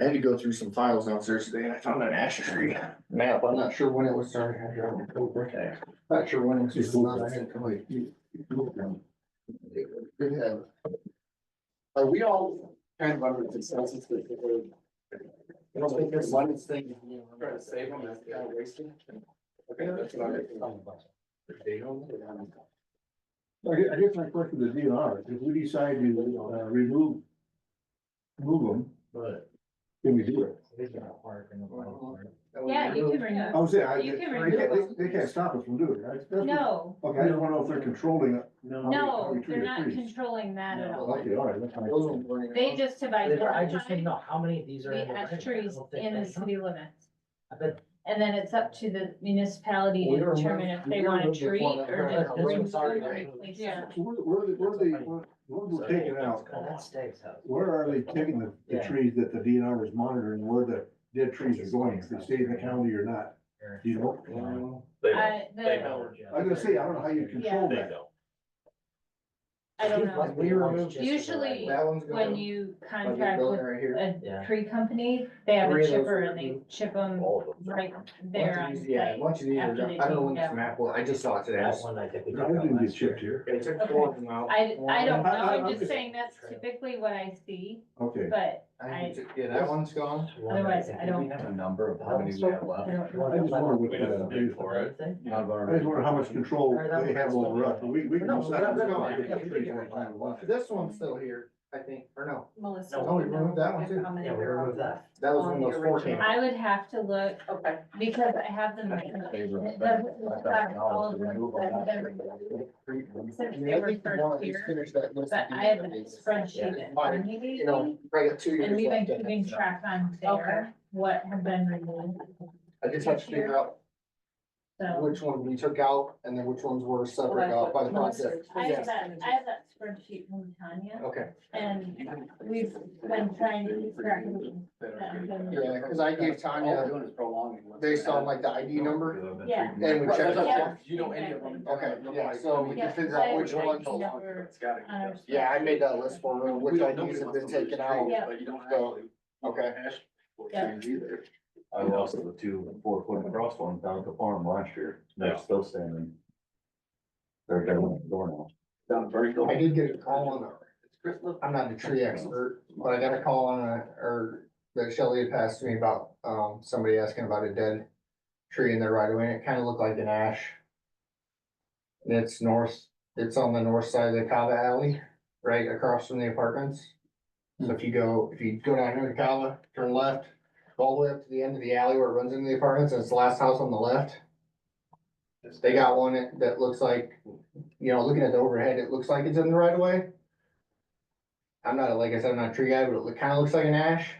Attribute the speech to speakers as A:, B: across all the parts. A: I had to go through some files downstairs today and I found an Asher Tree map. I'm not sure when it was started. I had it on October. Not sure when it's. Good have. Are we all kind of under consensus that we're? I don't think there's one thing. Try to save them, that's kind of wasting. Okay, that's what I'm.
B: I gue- I guess my question to the DNR, is if we decide to uh, remove, move them,
A: But.
B: can we do it?
C: Yeah, you can bring
B: I
C: up.
B: was saying, I,
C: You
B: they
C: can remove
B: can't, they-
C: them.
B: they can't stop us from doing it. I- that's what-
C: No,
B: Okay, I don't wanna know if they're controlling it. how we- how
C: no,
B: we treat
C: they're
B: the
C: not
B: trees.
C: controlling that at all.
B: Okay, all right, that's fine.
C: They just have
D: I just didn't
C: identified
D: know how many of these are.
C: the
D: in the
C: ash
D: record.
C: trees
D: I don't think
C: in the
D: they-
C: city limits.
D: I bet-
C: And then it's up to the municipality
A: We
C: to
A: were
C: determine
A: moved-
C: if
A: we
C: they
A: were
C: want
A: moved
C: to treat
A: before that.
C: or
A: Right.
C: just
A: That's
C: remove
A: what's already
C: them and
A: made.
C: replace them.
B: So Where, where, where they, where where they're taking out,
D: Oh, That stays out.
B: where are they taking the, the
D: Yeah.
B: trees that the DNR is monitoring, where the dead trees are going, if they stay in the county or not? Do you know?
E: They don't.
C: I,
E: They
C: the,
E: don't.
B: I was gonna say, I don't know how you control
E: They
B: that.
E: don't.
C: I don't
D: Like,
C: know.
D: we removed just the
C: Usually,
D: right-
C: When you contract with
A: Right here.
C: a
D: Yeah.
C: tree company, they have
A: Three
C: a
A: of those
C: chipper
A: were
C: and they
A: removed.
C: chip them
E: All of them.
C: right there on
A: Once these- Yeah,
C: site.
A: once you do your
C: after
A: job,
C: they
A: I don't know
C: take
A: when
C: them
A: this map was, I just saw it today. I
D: That
A: was-
D: one I think we.
B: I
D: took out
B: didn't get
D: last year.
B: chipped here.
A: It took four of them out.
C: I, I don't know,
B: I- I- I'm
C: I'm just
B: just-
C: saying that's typically what I see,
B: Okay.
C: but
A: I think it- Yeah, that one's gone.
D: One,
C: Otherwise,
D: think
C: I don't-
D: we have
F: A
D: a-
F: number of how many we have left.
C: I don't
B: I just wonder what,
E: We don't
B: uh,
E: do for it.
D: Anything?
F: I've
B: I just
F: already-
B: wonder how much control
D: Or that
B: they have
D: one.
B: over us, we, we can.
D: No,
B: decide
D: that's
B: what's
D: gone.
B: going on.
D: Yeah, we did get
A: This one's still here, I think, or no,
G: Melissa.
A: No, we removed that one too.
D: Yeah, we removed that.
A: that was when those four came. out.
C: I would have to look,
G: Okay.
C: because I have them.
F: Favor
C: It
F: of-
C: doesn't look like all of them, but they're- Since they were first here, but I have a spreadsheet that I'm
A: You know,
C: using,
A: probably got two years.
C: and we've been
A: left in it.
C: keeping track on there, what have been removed,
A: I just have to figure out
C: so.
A: which one we took out and then which ones were separate out by the process.
C: I have
A: Yes.
C: that, I have that spreadsheet from Tanya,
A: Okay,
C: and we've been trying to track them.
A: yeah, cause I gave Tanya,
F: doing is prolonging. what's
A: based on
F: happening.
A: like the ID number,
C: Yeah.
A: and we checked. it.
C: Yeah. You know any of them.
A: Okay, yeah, so we
C: Yeah,
A: can figure
C: I
A: out which
C: would
A: ones.
C: like number on-
A: Yeah, I made that list for her, which IDs have been taken out.
C: Yeah.
F: But you don't
A: So,
F: actually
A: Okay,
F: ask for
C: Yeah.
F: trees either. I lost the two four foot cross ones down at the farm last year. They're still standing. They're down the door now. Down Berkeley.
A: I did get a call on, I'm not a tree expert, but I got a call on, a- or that Shelley had passed to me about, um, somebody asking about a dead tree in their right of way, and it kind of looked like an ash. And It's north, it's on the north side of the Cava Alley, right across from the apartments. So if you go, if you go down here to Cava, turn left, go all the way up to the end of the alley where it runs into the apartments, and it's the last house on the left. They got one that- that looks like, you know, looking at the overhead, it looks like it's in the right of way. I'm not, like I said, I'm not a tree guy, but it look- kinda looks like an ash,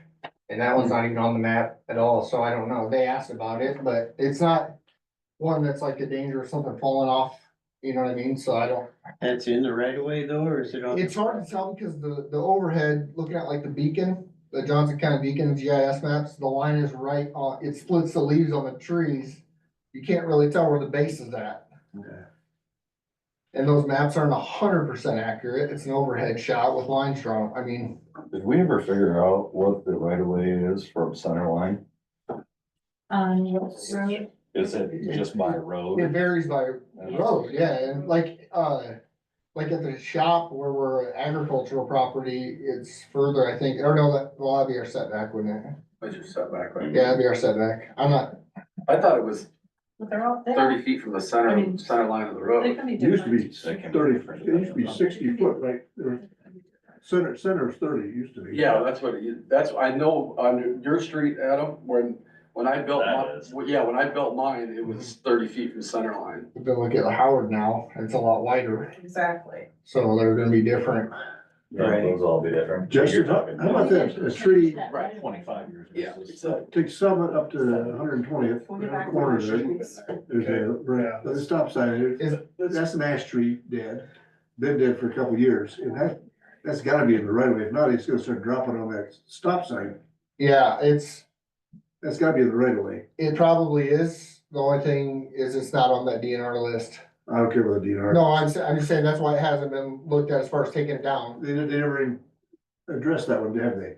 A: and that
H: Mm-hmm.
A: one's not even on the map at all, so I don't know, they asked about it, but it's not. One that's like a danger of something falling off, you know what I mean, so I don't,
H: That's in the right of way though, or is it on?
A: it's hard to tell because the, the overhead, looking at like the beacon. The Johnson County Beacon GIS maps, the line is right on, it splits the leaves on the trees, you can't really tell where the base is at. And those maps aren't hundred percent accurate. It's an overhead shot with lines drawn. I mean,
F: Did we ever figure out what the right of way is from center line?
C: On what's road?
F: Is it just by
A: it
F: road?
A: varies by road, yeah, and like, uh, like at the shop where we're agricultural property, it's further, I think, or no, that, well, that'd be our setback, wouldn't it?
I: What's your setback? like?
A: Yeah, that'd be our setback. I'm not,
I: I thought it was
G: But they're all, they
I: thirty feet from the
G: I
I: center,
G: mean-
I: center line of the
G: they
I: road.
G: can be
B: It used to
G: different.
B: be thirty, it used to be sixty foot, right, Or center, center is thirty, it used to be.
I: Yeah, that's what, it- that's, I know on your street, Adam, when, when I built,
E: That
I: my-
E: is. Mm-hmm.
I: well, yeah, when I built mine, it was thirty feet from center line.
A: if you look at Howard now, it's a lot wider,
G: Exactly.
A: so they're gonna be different.
E: Yeah, those all be different.
B: Justin,
E: You're
B: how
E: talking-
B: how about that, a tree,
I: Right.
F: Twenty-five years.
I: So,
B: take Summit up to hundred and twentieth,
G: We'll get back.
B: corner
G: to
B: there,
G: the-
B: there's a, right, there's a stop sign,
A: Is-
B: there. that's an ash tree dead. Been dead for a couple years, and that, that's gotta be in the right of way, if not, it's gonna start dropping on that stop sign,
A: Yeah, it's,
B: that's gotta be in the right of way,
A: it probably is. The only thing is it's not on that DNR list.
B: I don't care about the DNR.
A: No, I'm, s- I'm just saying that's why it hasn't been looked at as far as taking it down.
B: They, they never even addressed that one, have they?